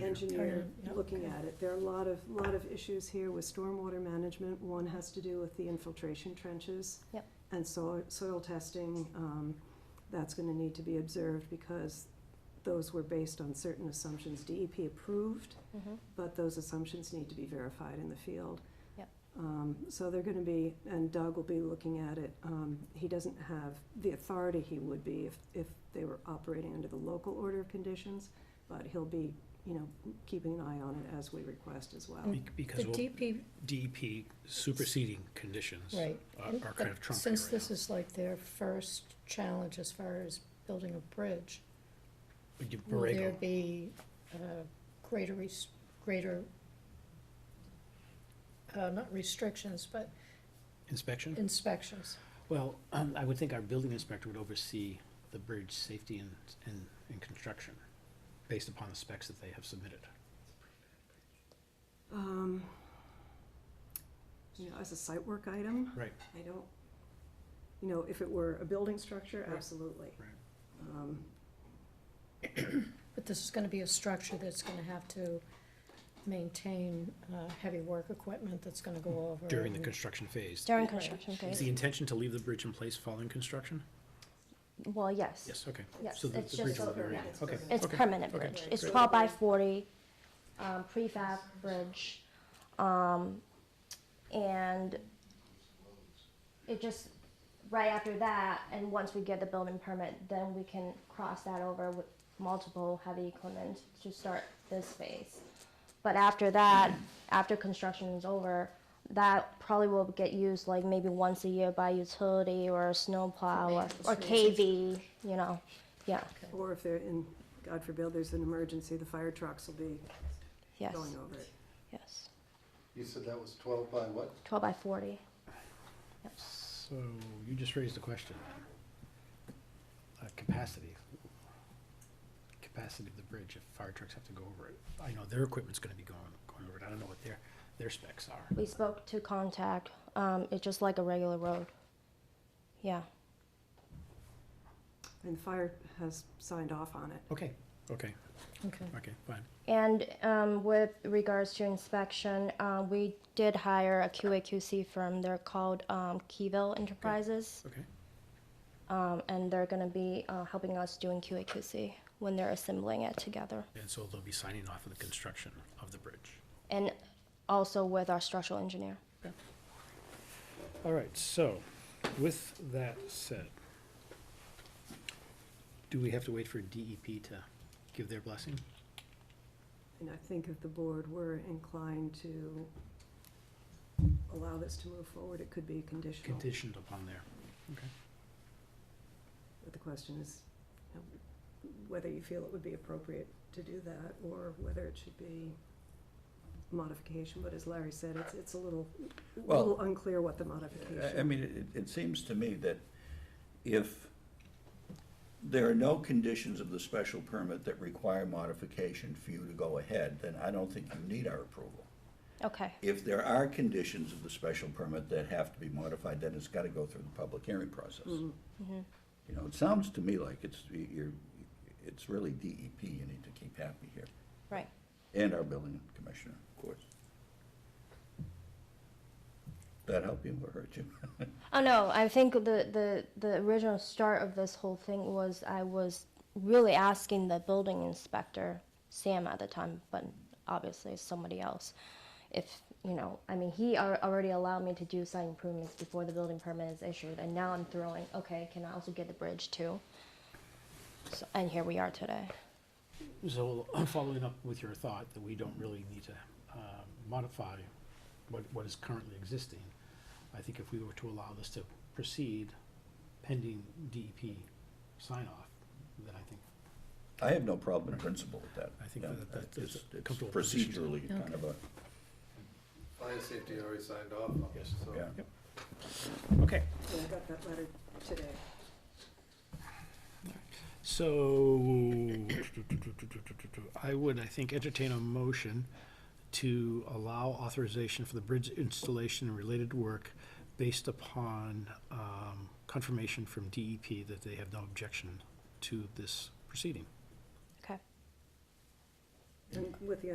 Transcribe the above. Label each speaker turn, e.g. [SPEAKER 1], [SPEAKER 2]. [SPEAKER 1] engineer
[SPEAKER 2] yeah,
[SPEAKER 1] looking
[SPEAKER 2] okay.
[SPEAKER 1] at it. There are a lot of, lot of issues here with stormwater management. One has to do with the infiltration trenches.
[SPEAKER 3] Yep.
[SPEAKER 1] And soil, soil testing, um, that's gonna need to be observed because those were based on certain assumptions DEP approved,
[SPEAKER 2] Mm-hmm.
[SPEAKER 3] Mhm.
[SPEAKER 1] but those assumptions need to be verified in the field.
[SPEAKER 3] Yep.
[SPEAKER 1] Um, so they're gonna be, and Doug will be looking at it, um, he doesn't have the authority he would be if, if they were operating under the local order of conditions, but he'll be, you know, keeping an eye on it as we request as well.
[SPEAKER 4] Be-
[SPEAKER 2] Oh, The
[SPEAKER 4] Because we'll-
[SPEAKER 2] DP,
[SPEAKER 4] DEP superseding conditions
[SPEAKER 2] right.
[SPEAKER 4] are are kind of
[SPEAKER 2] But
[SPEAKER 4] trumping
[SPEAKER 2] hmm? since
[SPEAKER 4] right
[SPEAKER 2] this
[SPEAKER 4] now.
[SPEAKER 2] is like their first challenge as far as building a bridge,
[SPEAKER 4] Would you
[SPEAKER 2] will
[SPEAKER 4] berate
[SPEAKER 2] there
[SPEAKER 4] them?
[SPEAKER 2] be uh, greater, res- greater, uh, not restrictions, but
[SPEAKER 4] Inspection?
[SPEAKER 2] inspections?
[SPEAKER 4] Well, um, I would think our building inspector would oversee the bridge safety and, and, and construction, based upon the specs that they have submitted.
[SPEAKER 1] Um, you know, as a site work item,
[SPEAKER 4] Right.
[SPEAKER 1] I don't, you know, if it were a building structure,
[SPEAKER 4] Right.
[SPEAKER 1] absolutely.
[SPEAKER 4] Right.
[SPEAKER 1] Um,
[SPEAKER 2] But this is gonna be a structure that's gonna have to maintain uh, heavy work equipment that's gonna go over.
[SPEAKER 4] During the
[SPEAKER 2] and-
[SPEAKER 4] construction phase.
[SPEAKER 3] During
[SPEAKER 2] Right.
[SPEAKER 3] construction
[SPEAKER 4] Is the
[SPEAKER 3] phase,
[SPEAKER 4] intention to leave the bridge in place following construction?
[SPEAKER 3] well, yes.
[SPEAKER 4] Yes, okay.
[SPEAKER 3] Yes,
[SPEAKER 4] So the-
[SPEAKER 3] it's
[SPEAKER 4] the bridge
[SPEAKER 3] just
[SPEAKER 4] will
[SPEAKER 3] a
[SPEAKER 4] be remain.
[SPEAKER 1] permanent.
[SPEAKER 4] Okay.
[SPEAKER 3] It's
[SPEAKER 4] okay.
[SPEAKER 3] permanent
[SPEAKER 4] okay,
[SPEAKER 3] bridge. It's
[SPEAKER 1] great.
[SPEAKER 3] twelve by forty, um, prefab bridge. Um, and it just, right after that, and once we get the building permit, then we can cross that over with multiple heavy equipment to start this phase. But after that, after construction is over, that probably will get used like maybe once a year by utility or a snowplow or, or KV, you know, yeah,
[SPEAKER 1] Or if they're in, God forbid, there's an emergency, the fire trucks will be
[SPEAKER 3] yes.
[SPEAKER 1] going over it.
[SPEAKER 3] Yes,
[SPEAKER 5] You said that was twelve by what?
[SPEAKER 3] twelve by forty.
[SPEAKER 4] So you just raised a question. Uh, capacity. Capacity of the bridge if fire trucks have to go over it. I know their equipment's gonna be going, going over it. I don't know what their, their specs are.
[SPEAKER 3] We spoke to contact. Um, it's just like a regular road. Yeah.
[SPEAKER 1] And fire has signed off on it.
[SPEAKER 4] Okay, okay,
[SPEAKER 2] Okay.
[SPEAKER 4] okay, fine.
[SPEAKER 3] And um, with regards to inspection, uh, we did hire a QAQC firm. They're called um, Keyville Enterprises,
[SPEAKER 4] Okay,
[SPEAKER 3] um, and they're going to be uh, helping us doing QAQC when they're assembling it together,
[SPEAKER 4] and so they'll be signing off on the construction of the bridge.
[SPEAKER 3] and also with our structural engineer.
[SPEAKER 4] All right, so with that said, do we have to wait for DEP to give their blessing?
[SPEAKER 1] And I think if the board were inclined to allow this to move forward, it could be conditional.
[SPEAKER 4] Conditioned upon their, okay.
[SPEAKER 1] But the question is, you know, whether you feel it would be appropriate to do that, or whether it should be modification, but as Larry said, it's, it's a little,
[SPEAKER 6] Well,
[SPEAKER 1] little unclear what the
[SPEAKER 6] I- I
[SPEAKER 1] modification.
[SPEAKER 6] mean, it, it seems to me that if there are no conditions of the special permit that require modification for you to go ahead, then I don't think you need our approval.
[SPEAKER 3] Okay.
[SPEAKER 6] If there are conditions of the special permit that have to be modified, then it's gotta go through the public hearing process. You know, it sounds to me like it's, you're, it's really DEP you need to keep happy here,
[SPEAKER 3] Right.
[SPEAKER 6] and our building commissioner, of course. That help you or hurt you?
[SPEAKER 3] Oh no, I think the, the, the original start of this whole thing was I was really asking the building inspector, Sam at the time, but obviously it's somebody else. If, you know, I mean, he al- already allowed me to do site improvements before the building permit is issued, and now I'm throwing, okay, can I also get the bridge too? So, and here we are today.
[SPEAKER 4] So following up with your thought that we don't really need to um, modify what, what is currently existing, I think if we were to allow this to proceed pending DEP sign-off, then I think,
[SPEAKER 6] I have no problem in principle with that.
[SPEAKER 4] I think
[SPEAKER 6] Yeah,
[SPEAKER 4] that- that-
[SPEAKER 6] It's
[SPEAKER 4] that's a
[SPEAKER 6] it's
[SPEAKER 4] comfortable position.
[SPEAKER 6] procedurally kind of a,
[SPEAKER 5] Fire safety already signed off on it,
[SPEAKER 4] Yes.
[SPEAKER 5] so.
[SPEAKER 6] yeah.
[SPEAKER 4] okay.
[SPEAKER 1] I got that letter today.
[SPEAKER 4] So, I would, I think, entertain a motion to allow authorization for the bridge installation and related work based upon um, confirmation from DEP that they have no objection to this proceeding.
[SPEAKER 3] Okay.
[SPEAKER 1] and with the